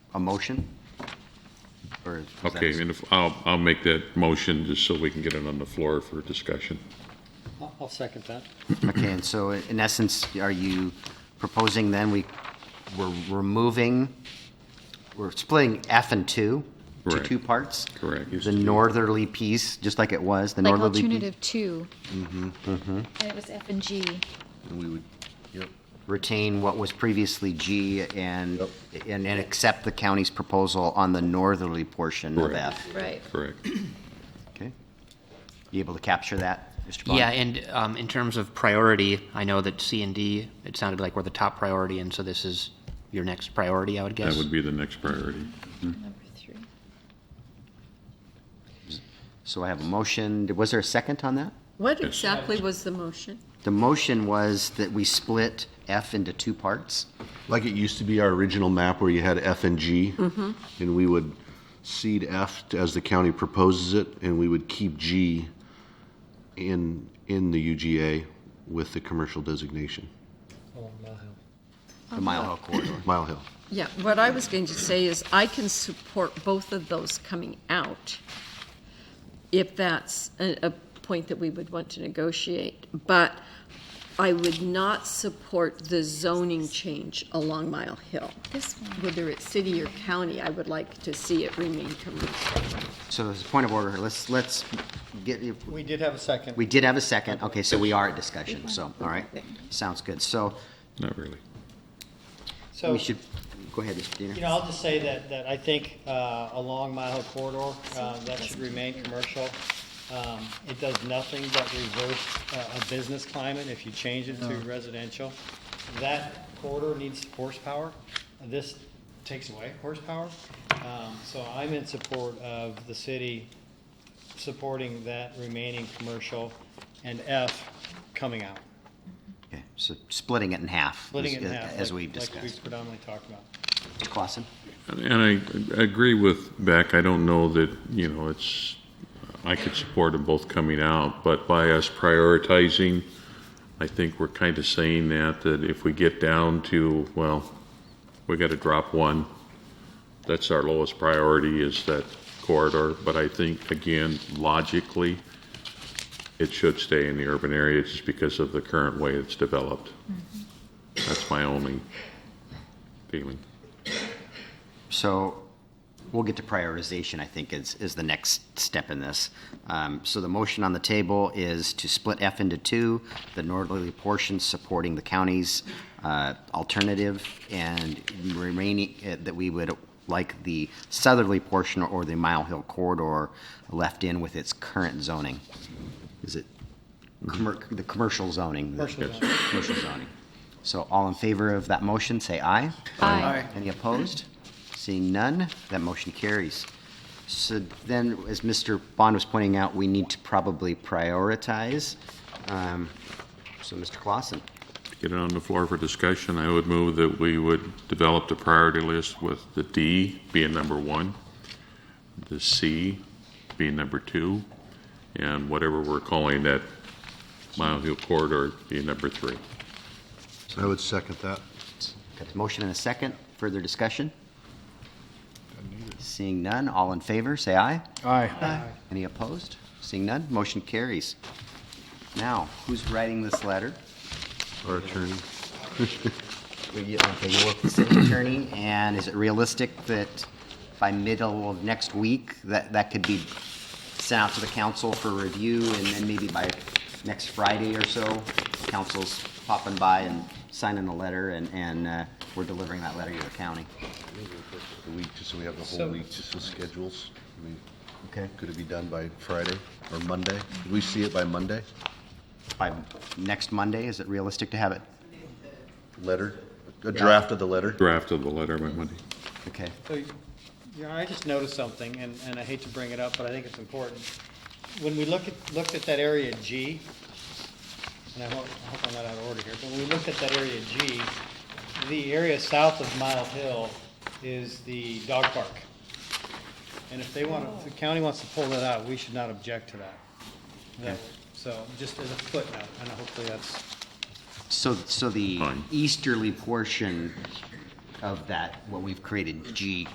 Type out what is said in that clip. a motion? Or is was that- Okay, and if, I'll, I'll make that motion just so we can get it on the floor for discussion. I'll- I'll second that. Okay, and so in essence, are you proposing then we, we're removing, we're splitting F and two to Correct. two parts? Correct. The northerly piece, just like it was, the Like northerly piece. alternative two. And it was F and G. And we would retain what was previously G and, and and accept the county's proposal on the northerly portion of Correct. F. Right. Correct. Okay? You able to capture that, Mr. Bond? Yeah, and um, in terms of priority, I know that C and D, it sounded like were the top priority, and so this is your next priority, I would That guess. would be the next priority. Number three. So I have a motion. Was there a second on that? What exactly was the motion? The motion was that we split F into two parts. Like it used to be our original map where you had F and G. And we would cede F to- as the county proposes it, and we would keep G in, in the UGA with the commercial designation, Uh-huh. the Mile Hill corridor. Mile Hill. Yeah, what I was going to say is I can support both of those coming out if that's a, a point that we would want to negotiate. But I would not support the zoning change along Mile Hill. This one. Whether it's city or county, I would like to see it remain commercial. So as a point of order, let's, let's get, We did have a second. we did have a second, okay, so we are at discussion, so, all right, sounds good. So Not really. So, we should, go ahead, Mr. you know, Diener. I'll just say that, that I think uh, along Mile Hill Corridor, uh, that should remain commercial. Um, It does nothing but reverse uh, a business climate if you change it Uh-huh. to residential. That corridor needs horsepower. This takes away horsepower. Um, So I'm in support of the city supporting that remaining commercial and F coming out. Okay, So splitting it in half. Splitting it in as- half. As like- we've Like we've discussed. predominantly talked about. Mr. Clausen? And I agree with Beck. I don't know that, you know, it's, I could support them both coming out, but by us prioritizing, I think we're kind of saying that, that if we get down to, well, we got to drop one, that's our lowest priority is that corridor. But I think, again, logically, it should stay in the urban area just because of the current way it's developed. That's my only feeling. So we'll get to prioritization, I think, is, is the next step in this. Um, So the motion on the table is to split F into two, the northerly portion supporting the county's uh, alternative, and remaining, uh, that we would like the southerly portion or the Mile Hill corridor left in with its current zoning. Is it commer- the commercial zoning? Commercial zoning. Commercial zoning. So all in favor of that motion, say aye. Aye. Any opposed? Seeing none, that motion carries. So then, as Mr. Bond was pointing out, we need to probably prioritize. Um, So, Mr. Clausen, Get it on the floor for discussion. I would move that we would develop the priority list with the D being number one, the C being number two, and whatever we're calling that Mile Hill corridor being number three. I would second that. got the motion and a second, further discussion? Seeing none, all in favor, say aye. Aye. Any opposed? Seeing none, motion carries. Now, who's writing this letter? Our attorney. Will you- Okay, you work with the city attorney, and is it realistic that by middle of next week, that, that could be sent out to the council for review, and then maybe by next Friday or so, council's popping by and signing a letter, and, and uh, we're delivering that letter to the county? The week, just so we have the So- whole week, just with schedules. I mean, Okay. Could it be done by Friday or Monday? Could we see it by Monday? By next Monday, is it realistic to have it? Letter, a draft of the letter? Draft of the letter by Monday. Okay, So, you know, I just noticed something, and, and I hate to bring it up, but I think it's important. When we look at, looked at that area G, and I hope, I hope I'm not out of order here, but when we looked at that area G, the area south of Mile Hill is the dog park. And if they want, if the county wants to pull that out, we should not object to that. That- So, just as a footnote, and hopefully that's, so, so the Fine. easterly portion of that, what we've created, G,